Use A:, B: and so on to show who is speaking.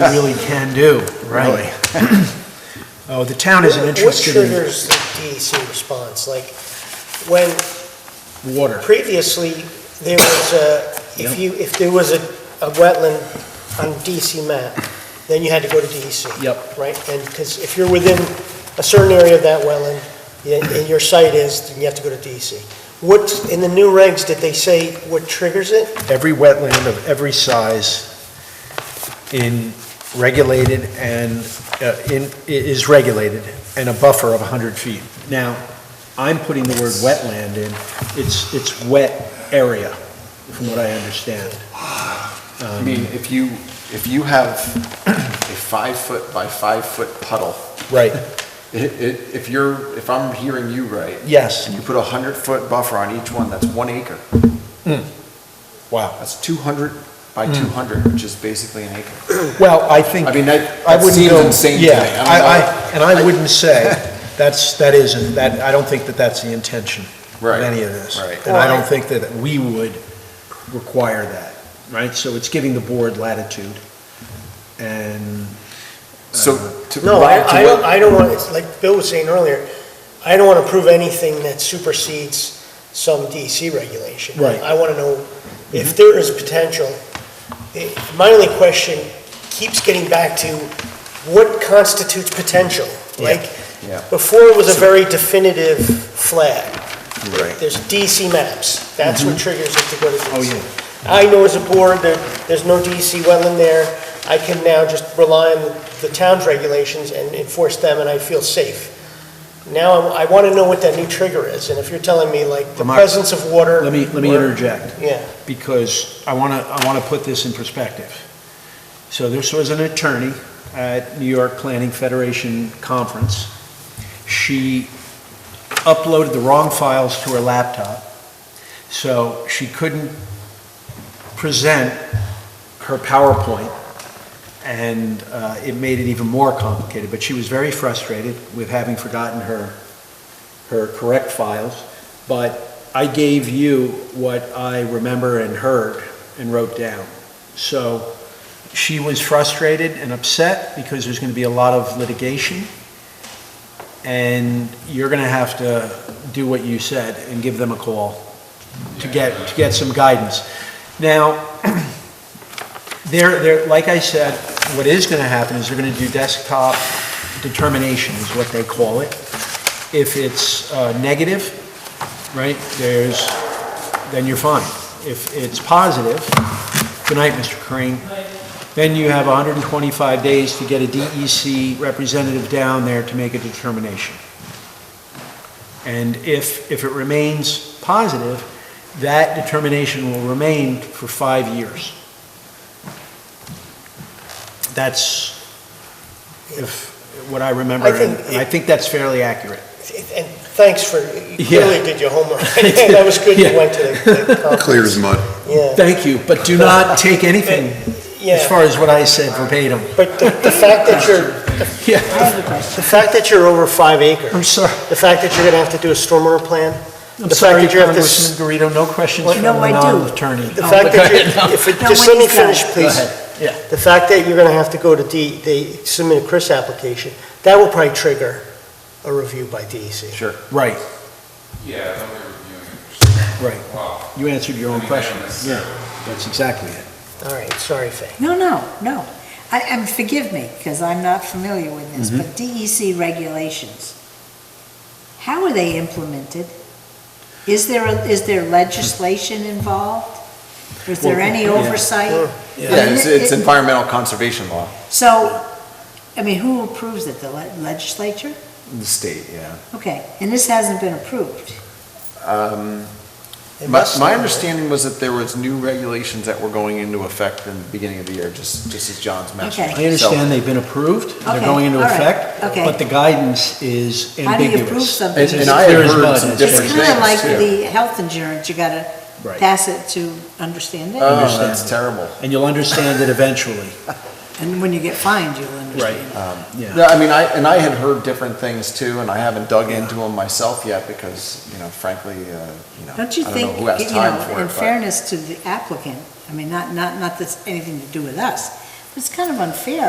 A: we really can do, really. Oh, the town isn't interested
B: What
A: in
B: triggers the DEC response? Like, when
A: water.
B: previously, there was a, if you, if there was a, a wetland on DEC map, then you had to go to DEC.
A: Yep.
B: Right, and, because if you're within a certain area of that wetland, and- and your site is, then you have to go to DEC. What, in the new regs, did they say what triggers it?
A: Every wetland of every size in regulated and, uh, in, i- is regulated, and a buffer of 100 feet. Now, I'm putting the word wetland in, it's, it's wet area, from what I understand.
C: I mean, if you, if you have a five-foot by five-foot puddle,
A: Right.
C: it, it, if you're, if I'm hearing you right,
A: Yes,
C: and you put a hundred-foot buffer on each one, that's one acre.
A: wow.
C: That's two hundred by
A: Hmm.
C: two hundred, which is basically an acre.
A: Well, I think.
C: I mean, that,
A: I
C: that
A: wouldn't
C: seems
A: go-
C: insane to me.
A: Yeah,
C: don't
A: I, I,
C: know.
A: and I wouldn't say, that's, that isn't, that, I don't think that that's the intention of
C: Right,
A: any of this.
C: right.
A: And I don't think that we would require that, right? So it's giving the board latitude, and,
C: So, to.
B: No, I, I
C: to what-
B: don't, I don't want, it's like Bill was saying earlier, I don't want to prove anything that supersedes some DC regulation.
A: Right.
B: I want to know if there is potential. Eh, My only question keeps getting back to what constitutes potential? Like,
C: Yeah.
B: before it was a very definitive flag. There's DC maps, that's
C: Mm-hmm.
B: what triggers it to go to DC.
A: Oh, yeah.
B: I know as a board that there's no DC wetland there, I can now just rely on the town's regulations and enforce them, and I feel safe. Now, I want to know what that new trigger is, and if you're telling me, like, the
A: Lamar,
B: presence of water...
A: let me, let me
B: or-
A: interject.
B: Yeah,
A: because I want to, I want to put this in perspective. So this was an attorney at New York Planning Federation Conference. She uploaded the wrong files to her laptop, so she couldn't present her PowerPoint, and uh, it made it even more complicated. But she was very frustrated with having forgotten her, her correct files, but I gave you what I remember and heard and wrote down. So she was frustrated and upset because there's going to be a lot of litigation. And you're going to have to do what you said and give them a call to get, to get some guidance. Now, there, there, like I said, what is going to happen is they're going to do desktop determination is what they call it. If it's uh, negative, right, there's, then you're fine. If it's positive, good night, Mr. Crane, then you have 125 days to get a DEC representative down there to make a determination. And if, if it remains positive, that determination will remain for five years. That's if, what I remember,
B: I think
A: and and I think that's fairly accurate.
B: and thanks for, you
A: Yeah.
B: clearly did your homework. That was good
A: Yeah.
B: you went to the- the conference.
D: Clear as mud.
B: Yeah,
A: Thank you, but do not take anything as
B: yeah,
A: far as what I said verbatim.
B: but the the fact that you're,
A: Yeah,
B: the fact that you're over five acres...
A: I'm sorry,
B: The fact that you're gonna have to do a stormwater plan,
A: I'm
B: The
A: sorry,
B: fact that you have this-
A: Congressman Garrido, no questions
B: Well,
A: from
E: no,
A: a
E: I do.
A: non-attorney.
B: the fact that you're, if, it-
E: No,
B: just let
E: when
B: me
E: he's done.
B: finish, please.
A: yeah.
B: The fact that you're gonna have to go to D, they submit a Chris application, that will probably trigger a review by E DEC.
C: Sure.
A: Right,
F: Yeah, they'll be reviewing it.
A: right,
F: Wow.
A: you answered your own
F: I mean,
A: question,
F: that's-
A: yeah, that's exactly it.
B: All right, sorry, Fay.
E: No, no, no. I, and forgive me, because I'm not familiar with this,
A: Mm-hmm.
E: but DEC regulations, how are they implemented? Is there, a- is there legislation involved? Is there any
A: Well, yeah.
E: oversight? I mean,
C: Yeah, it's,
E: it-
C: it's
E: it-
C: environmental conservation law.
E: So, I mean, who approves it? The le- legislature?
C: The state, yeah.
E: Okay, and this hasn't been approved.
C: Um,
B: It
C: My,
B: must-
C: my understanding was that there was new regulations that were going into effect in the beginning of the year, just, just as John's mentioned.
E: Okay.
A: I understand they've been approved, they're
E: Okay,
A: going into
E: all right,
A: effect,
E: okay.
A: but the guidance is ambiguous.
E: How do you approve something?
A: It's
C: And-
A: as
C: and I have
A: clear as
C: heard
A: mud.
C: some
A: It's
E: It's
C: different
E: kind
C: things,
E: of like
C: too.
E: the health insurance, you gotta
A: Right.
E: pass it to understand it.
C: So- Oh,
A: Understand.
C: that's terrible.
A: And you'll understand it eventually,
E: And when you get fined, you'll understand.
A: yeah.
C: Yeah, I mean, I, and I had heard different things too, and I haven't dug into them myself yet because, you know, frankly, uh, you know, I
E: Don't you
C: don't know
E: think,
C: who
E: you
C: has time
E: know,
C: for it.
E: in
C: but-
E: fairness to the applicant, I mean, not, not, not that's anything to do with us, but it's kind of unfair